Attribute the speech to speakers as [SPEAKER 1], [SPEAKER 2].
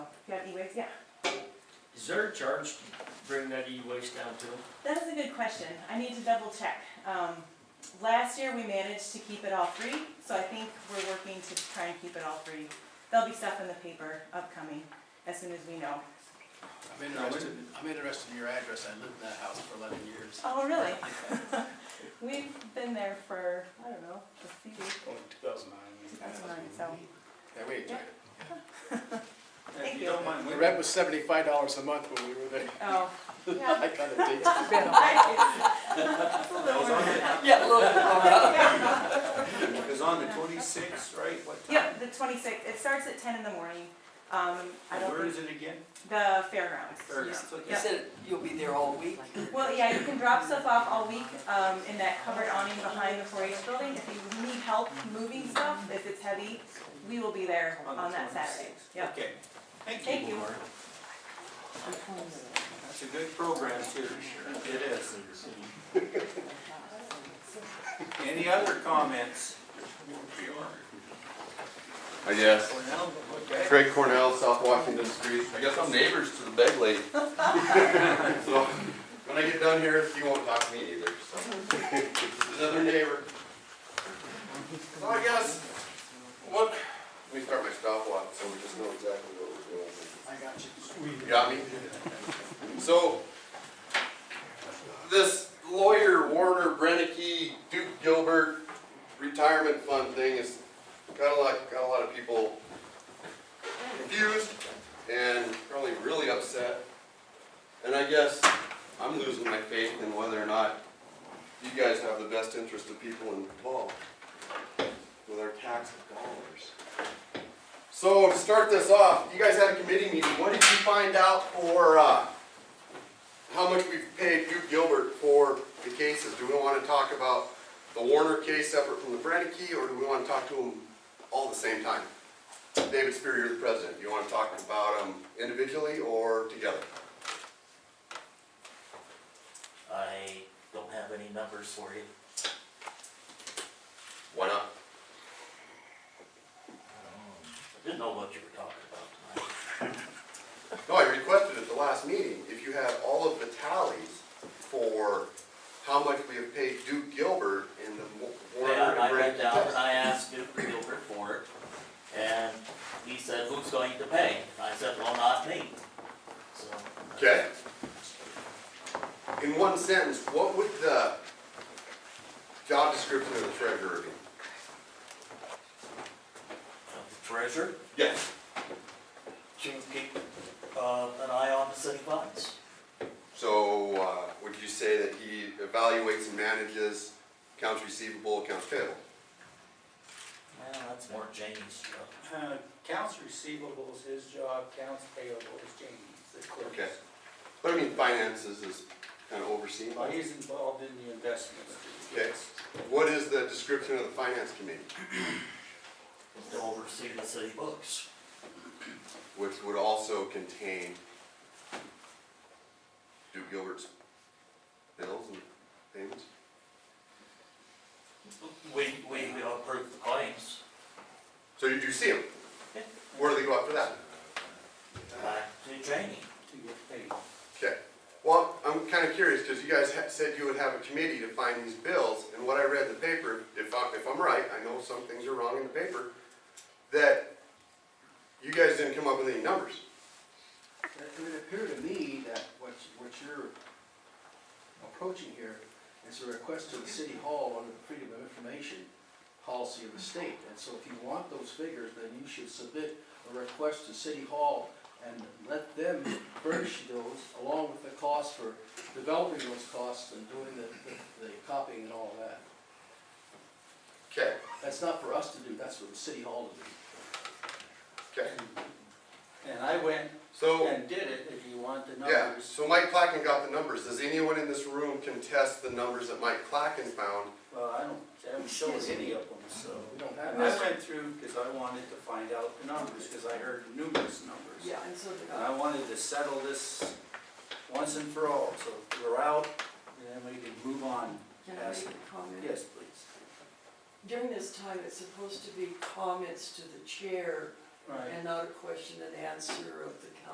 [SPEAKER 1] got e-waste, yeah.
[SPEAKER 2] Is there a charge to bring that e-waste down too?
[SPEAKER 1] That is a good question. I need to double check. Um, last year, we managed to keep it all free, so I think we're working to try and keep it all free. There'll be stuff in the paper upcoming as soon as we know.
[SPEAKER 3] I'm interested, I'm interested in your address, I lived in that house for eleven years.
[SPEAKER 1] Oh, really? We've been there for, I don't know, a few weeks.
[SPEAKER 4] Only two thousand nine.
[SPEAKER 1] That's mine, so.
[SPEAKER 3] Yeah, we enjoyed it.
[SPEAKER 1] Thank
[SPEAKER 4] If
[SPEAKER 1] you.
[SPEAKER 4] you don't mind
[SPEAKER 3] The
[SPEAKER 4] waiting,
[SPEAKER 3] rent was seventy-five dollars a month when we were there.
[SPEAKER 1] Oh, yeah.
[SPEAKER 3] I kind of did.
[SPEAKER 1] It's a little
[SPEAKER 4] was on
[SPEAKER 1] over
[SPEAKER 4] it.
[SPEAKER 1] now.
[SPEAKER 5] Yeah, a little bit.
[SPEAKER 1] Yeah.
[SPEAKER 4] it was on the twenty-sixth, right? What time?
[SPEAKER 1] Yep, the twenty-sixth. It starts at ten in the morning. Um, I
[SPEAKER 4] And
[SPEAKER 1] don't
[SPEAKER 4] Where
[SPEAKER 1] think,
[SPEAKER 4] is it again?
[SPEAKER 1] the fairgrounds.
[SPEAKER 4] Fairgrounds,
[SPEAKER 5] You
[SPEAKER 4] okay.
[SPEAKER 5] said you'll be there all week?
[SPEAKER 1] Well, yeah, you can drop stuff off all week, um, in that covered awning behind the four H building. If you need help moving stuff, if it's heavy, we will be there
[SPEAKER 4] On the
[SPEAKER 1] on that Saturday.
[SPEAKER 4] 26th.
[SPEAKER 1] Yep.
[SPEAKER 4] Okay, thank you.
[SPEAKER 1] Thank you.
[SPEAKER 4] That's a good program too. It is. Any other comments?
[SPEAKER 6] I guess.
[SPEAKER 4] Cornell, okay.
[SPEAKER 6] Craig Cornell, South Washington Street. I guess I'm neighbors to the beg lady. so when I get done here, you won't talk to me either. So another neighbor. So I guess what? Let me start my stopwatch so we just know exactly what we're doing. I got you. You got me. So this lawyer Warner Brennicky Duke Gilbert retirement fund thing is got a lot got a lot of people confused and probably really upset. And I guess I'm losing my faith in whether or not you guys have the best interest of people involved with our tax dollars. So to start this off, you guys had a committee meeting. What did you find out for, uh, how much we've paid Duke Gilbert for the cases? Do we wanna talk about the Warner case separate from the Brennicky, or do we wanna talk to them all at the same time? David Spear, you're the president. You want to talk about them individually or together?
[SPEAKER 7] I don't have any numbers for you.
[SPEAKER 6] Why not?
[SPEAKER 7] I Didn't know what you were talking about tonight.
[SPEAKER 6] No, I requested at the last meeting, if you have all of the tallies for how much we have paid Duke Gilbert in the Wa- Warner
[SPEAKER 7] Yeah, and
[SPEAKER 6] and
[SPEAKER 7] I
[SPEAKER 6] Brand
[SPEAKER 7] went down and
[SPEAKER 6] test.
[SPEAKER 7] I asked Duke Gilbert for it, and he said, who's going to pay? And I said, well, not me. So.
[SPEAKER 6] Okay? In one sentence, what would the job description of the treasurer be?
[SPEAKER 7] The Treasurer,
[SPEAKER 6] Yes.
[SPEAKER 7] to keep, uh, an eye on the city funds.
[SPEAKER 6] So, uh, would you say that he evaluates and manages accounts receivable, accounts payable?
[SPEAKER 7] Well, that's more James. job.
[SPEAKER 4] Uh, Counts receivable is his job, counts payable is Jamie's, the clerk's.
[SPEAKER 6] Okay. But I mean, finances is kind of overseen by
[SPEAKER 4] Well,
[SPEAKER 6] you.
[SPEAKER 4] he's involved in the investments.
[SPEAKER 6] Okay. What is the description of the finance committee,
[SPEAKER 7] to oversee the city books.
[SPEAKER 6] which would also contain Duke Gilbert's bills and payments?
[SPEAKER 7] We, we approve the claims.
[SPEAKER 6] So you do see them? Where do they go after that?
[SPEAKER 7] Back to Jamie.
[SPEAKER 4] To get paid.
[SPEAKER 6] Okay. Well, I'm kind of curious, because you guys ha- said you would have a committee to find these bills, and what I read in the paper, if I'm, if I'm right, I know some things are wrong in the paper, that you guys didn't come up with any numbers.
[SPEAKER 8] It it would appear to me that what, what you're approaching here is a request to the city hall under the Freedom of Information policy of the state. And so if you want those figures, then you should submit a request to city hall and let them furnish those along with the cost for developing those costs and doing the, the- the copying and all that.
[SPEAKER 6] Okay,
[SPEAKER 8] That's not for us to do, that's for the city hall to do.
[SPEAKER 6] okay.
[SPEAKER 4] And I went
[SPEAKER 6] So.
[SPEAKER 4] and did it, if you want the
[SPEAKER 6] Yeah,
[SPEAKER 4] numbers.
[SPEAKER 6] so Mike Clacken got the numbers. Does anyone in this room contest the numbers that Mike Clacken found?
[SPEAKER 4] Well, I don't, I haven't shown any of them, so.
[SPEAKER 8] We don't
[SPEAKER 4] I
[SPEAKER 8] have.
[SPEAKER 4] went through, because I wanted to find out the numbers, because I heard numerous numbers.
[SPEAKER 5] and so
[SPEAKER 4] And I wanted to settle this once and for all, so if we're out, then we can move on.
[SPEAKER 9] Can I
[SPEAKER 4] past
[SPEAKER 9] make
[SPEAKER 4] it.
[SPEAKER 9] a comment?
[SPEAKER 4] Yes, please.
[SPEAKER 9] During this time, it's supposed to be comments to the chair
[SPEAKER 4] Right.
[SPEAKER 9] and not a question and answer of